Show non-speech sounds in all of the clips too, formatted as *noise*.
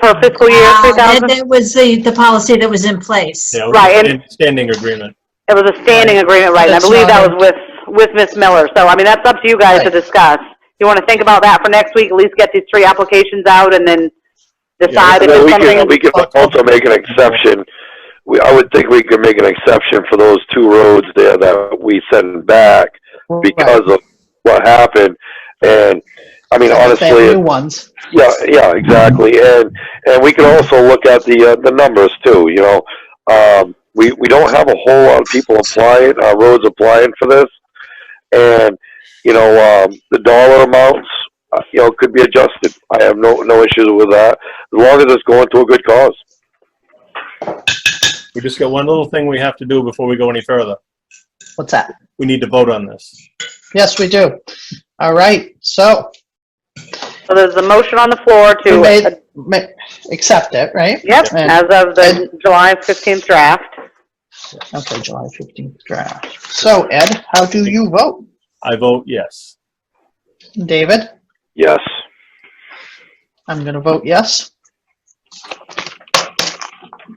for fiscal year Uh, that- 2000? That was the, the policy that was in place. Yeah, it was Right, a and- stand- Standing agreement. It was a standing agreement, right, and I That's believe that not was with, with Ms. Miller, so I mean, that's up to you guys to Right. discuss. You want to think about that for next week, at least get these three applications out and then decide if Well, it's we something. can, we can also make an exception. We, I would think we could make an exception for those two roads there that we sent back because of what happened. And, I mean, honestly, Family it- ones. yeah, yeah, exactly. And, and we could also look at the, uh, the numbers too, you know. Um, we, we don't have a whole lot of people applying, uh, roads applying for this. And, you know, um, the dollar amounts, uh, you know, could be adjusted. I have no, no issues with that, as long as it's going to a good cause. We just got one little thing we have to do before we go any further. What's that? We need to vote on this. Yes, we do. All right, so So there's a motion on the floor we made, to, ma- accept it, right? yep, and- as of the July 15th draft. Okay, July 15th draft. So Ed, how do you vote? I vote yes. David, Yes. I'm going to vote yes.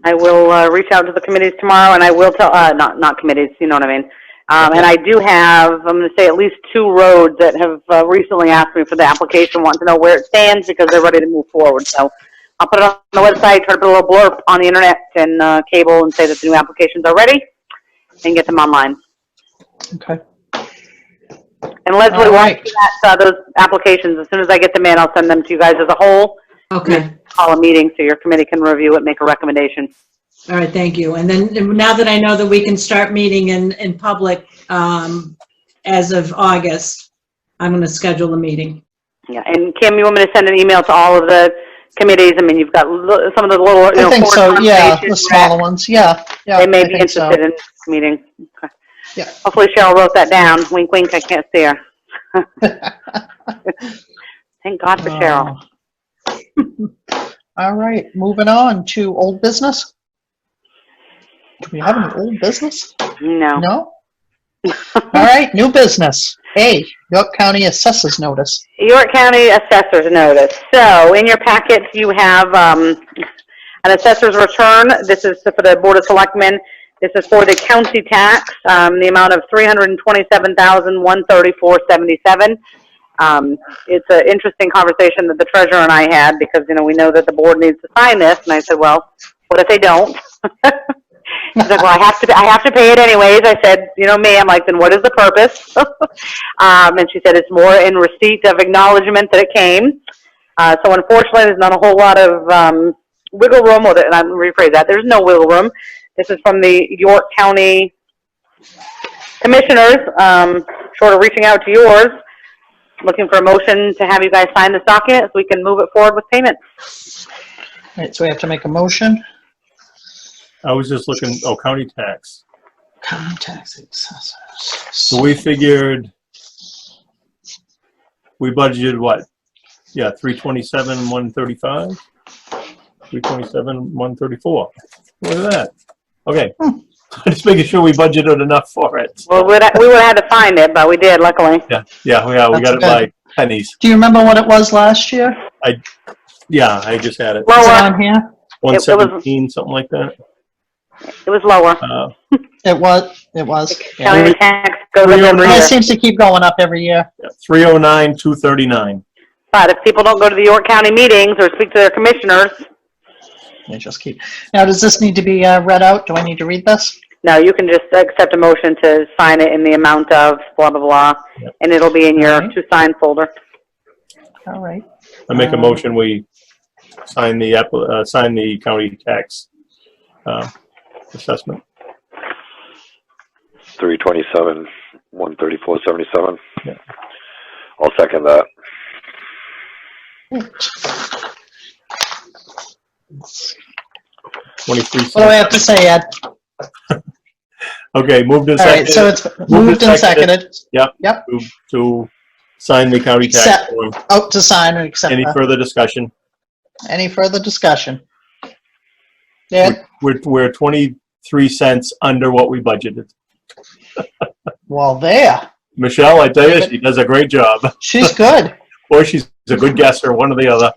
I will uh, reach out to the committees tomorrow, and I will tell, uh, not, not committees, you know what I mean. Um, and I do have, I'm gonna say at least two roads that have uh, recently asked me for the application, want to know where it stands because they're ready to move forward, so. I'll put it on the website, try to put a little blurb on the internet and, uh, cable and say that the new applications are ready and get them online. Okay. And Leslie, once All right. you get, uh, those applications, as soon as I get them in, I'll send them to you guys as a whole, Okay, call a meeting so your committee can review it, make a recommendation. all right, thank you. And then, now that I know that we can start meeting in, in public, um, as of August, I'm gonna schedule a meeting. Yeah, and Kim, you want me to send an email to all of the committees? I mean, you've got li- some of the little, you know, I think board so, yeah, the conversations smaller ones, yeah. that yeah, They may I be think so. interested in this meeting. Okay. Yeah. Hopefully Cheryl wrote that down. Wink, wink, I can't see her. *laughs* *laughs* Thank God for Cheryl. Oh. Um, *laughs* All right, moving on to old business. Do we have any old business? No. No? All right, new business. A, York County Assessors Notice. York County Assessor's Notice. So in your packet, you have um, an assessor's return. This is for the Board of Selectmen. This is for the county tax, um, the amount of three hundred and twenty-seven thousand one thirty-four seventy-seven. Um, It's an interesting conversation that the treasurer and I had because, you know, we know that the board needs to sign this. And I said, well, what if they don't? *laughs* He's like, well, I have to, I have to pay it anyways. I said, you know me, I'm like, then what is the purpose? *laughs* Um, and she said it's more in receipt of acknowledgement that it came. Uh, so unfortunately, there's not a whole lot of um, wiggle room, or the, and I'm rephrase that. There's no wiggle room. This is from the York County Commissioners. Um, short of reaching out to yours, looking for a motion to have you guys sign this document so we can move it forward with payment. All right, so we have to make a motion. I was just looking, oh, county tax. County Tax Assessors. So we figured, we budgeted what? Yeah, three twenty-seven, one thirty-five? Three twenty-seven, one thirty-four. Look at that. Okay. *laughs* Just making sure we budgeted enough for it. Well, we'd, we would have had to find it, but we did, luckily. Yeah, yeah, we are. we got it by pennies. Do you remember what it was last year? Yeah, I just had it. Is it Lower, on here? One seventeen, something like that. it was lower. Uh, It was, it was. yeah. County tax goes up We every don't It year. seems to keep going up every year. three oh nine, two thirty-nine. But if people don't go to the York County meetings or speak to their commissioners, They just keep. Now, does this need to be uh, read out? Do I need to read this? no, you can just accept a motion to sign it in the amount of blah, blah, blah, Yep. and it'll be in your Alright. to-sign folder. All right. I make a Um, motion, we sign the, app- uh, sign the county tax, uh, assessment. Three twenty-seven, one thirty-four, seventy-seven. Yeah. I'll second that. Twenty-three What do I cents. have to say, Ed? Okay, moved and All right, so seconded it's moved and seconded. to- to sign the county tax. Accept. form. Out Oh, to sign and accept. Any that. further discussion? Any further discussion? Ed? We're, we're twenty-three cents under what we budgeted. Well, there. Michelle, I tell you, she does a great job, She's good. or she's a good guesser, one or the other.